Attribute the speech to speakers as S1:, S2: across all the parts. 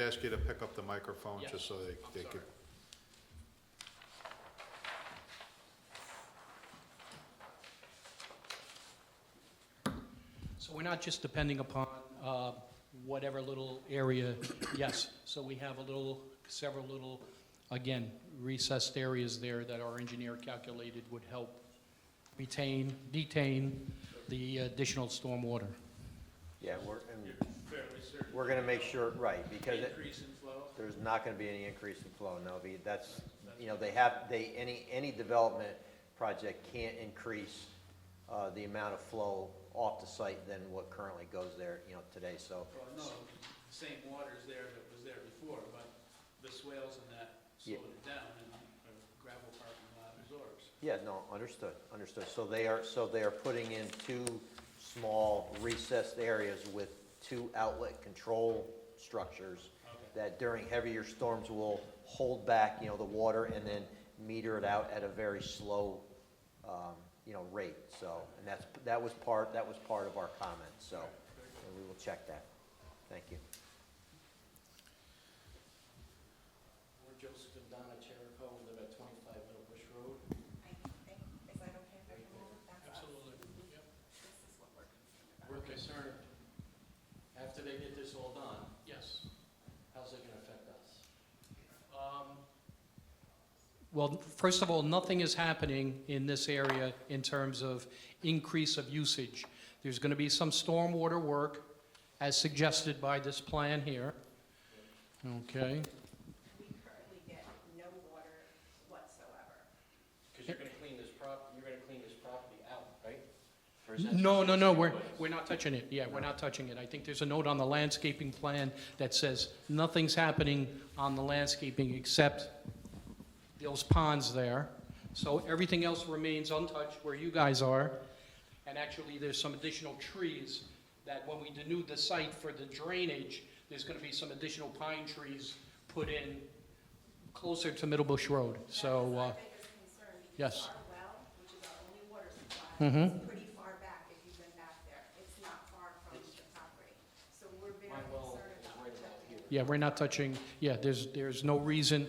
S1: ask you to pick up the microphone,
S2: Yes,
S1: just so they,
S2: I'm
S1: they could.
S2: sorry. So we're not just depending upon uh, whatever little area, yes. So we have a little, several little, again, recessed areas there that our engineer calculated would help retain, detain the additional stormwater.
S3: Yeah, we're, and
S4: fairly certain.
S3: we're gonna make sure, right, because it-
S4: Increase in flow,
S3: there's not gonna be any increase in flow, no, be- that's, you know, they have, they, any, any development project can't increase, uh, the amount of flow off the site than what currently goes there, you know, today, so.
S4: well, no, the same water's there that was there before, but the swales and that
S3: Yeah.
S4: slowed it down and the gravel parking lot absorbs.
S3: Yeah, no, understood, understood, so they are, so they are putting in two small recessed areas with two outlet control structures
S4: Okay.
S3: that during heavier storms will hold back, you know, the water and then meter it out at a very slow, um, you know, rate, so, and that's, that was part, that was part of our comment, so, and we will check that. Thank you.
S5: We're Joseph and Donna Cherico, we live at 25 Middle Bush Road.
S2: Absolutely, yep.
S5: We're concerned, after they get this all done,
S2: Yes.
S5: how's it gonna affect us?
S2: Um, Well, first of all, nothing is happening in this area in terms of increase of usage. There's going to be some stormwater work, as suggested by this plan here. Okay,
S6: We currently get no water whatsoever.
S5: Because you're gonna clean this prop, you're gonna clean this property out, right? Or is that-
S2: no, no, no, we're, we're not touching it, yeah, we're not touching it. I think there's a note on the landscaping plan that says, nothing's happening on the landscaping except those ponds there. So everything else remains untouched where you guys are. And actually, there's some additional trees that when we denude the site for the drainage, there's gonna be some additional pine trees put in closer to Middle Bush Road, so, uh,
S6: That's my biggest concern,
S2: yes.
S6: because our well, which is our only water supply,
S2: Mhm.
S6: is pretty far back if you've been back there. It's not far from the property. So we're very
S5: My well
S6: concerned
S5: is
S6: about
S5: right about
S6: protecting.
S5: here.
S2: Yeah, we're not touching, yeah, there's, there's no reason,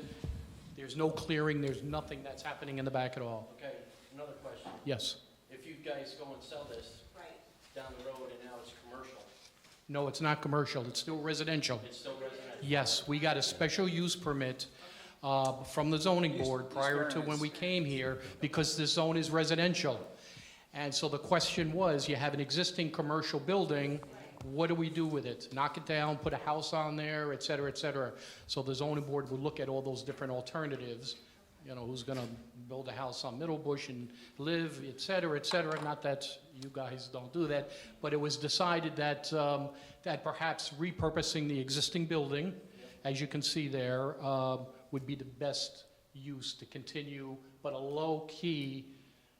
S2: there's no clearing, there's nothing that's happening in the back at all.
S5: Okay, another question.
S2: Yes.
S5: If you guys go and sell this
S6: Right.
S5: down the road and now it's commercial,
S2: No, it's not commercial, it's still residential.
S5: it's still residential?
S2: Yes, we got a special use permit uh, from the zoning board prior to when we came here because the zone is residential. And so the question was, you have an existing commercial building, what do we do with it? Knock it down, put a house on there, et cetera, et cetera. So the zoning board would look at all those different alternatives, you know, who's going to build a house on Middle Bush and live, et cetera, et cetera. Not that you guys don't do that, but it was decided that, um, that perhaps repurposing the existing building, as you can see there, uh, would be the best use to continue, but a low-key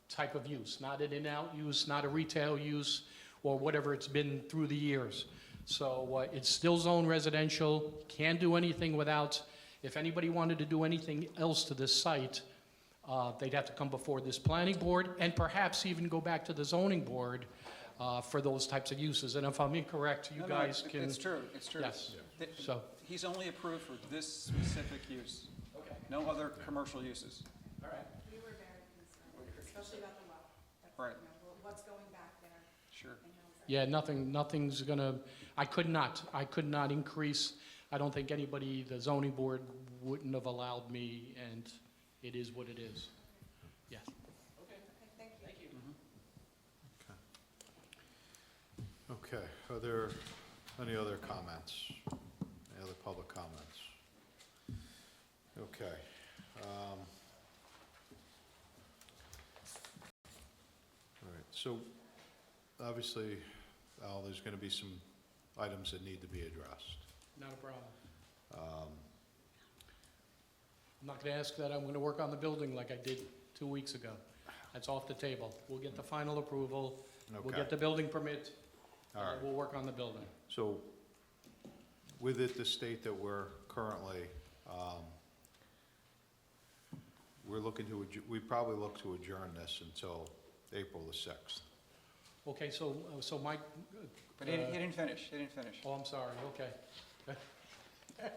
S2: type of use, not an in-out use, not a retail use, or whatever it's been through the years. So uh, it's still zone residential, can't do anything without, if anybody wanted to do anything else to this site, uh, they'd have to come before this planning board, and perhaps even go back to the zoning board uh, for those types of uses. And if I'm incorrect, you
S7: No, no,
S2: guys
S7: it-
S2: can...
S7: It's true, it's true.
S2: Yes.
S7: Th-
S2: So-
S7: He's only approved for this specific use,
S5: Okay,
S7: no other commercial uses.
S5: all right.
S6: We were very concerned, especially about the well. That's,
S7: Right.
S6: you know, what- What's going back there
S7: Sure.
S6: and how is that?
S2: Yeah, nothing, nothing's gonna, I could not, I could not increase, I don't think anybody, the zoning board wouldn't have allowed me, and it is what it is. Yes.
S6: Okay, thank you.
S1: Okay, are there any other comments? Any other public comments? Okay. um, All right, so obviously, Al, there's going to be some items that need to be addressed.
S2: Not a problem.
S1: Um,
S2: I'm not gonna ask that, I'm gonna work on the building like I did two weeks ago. That's off the table. We'll get the final approval, we'll
S1: Okay,
S2: get the building permit,
S1: all right.
S2: and we'll work on the building.
S1: So with it, the state that we're currently, um, we're looking to, adj- we probably look to adjourn this until April the 6th.
S2: Okay, so, uh, so Mike, oh,
S7: But he he
S2: Uh,
S7: didn't finish, he didn't finish.
S2: oh, I'm sorry, okay.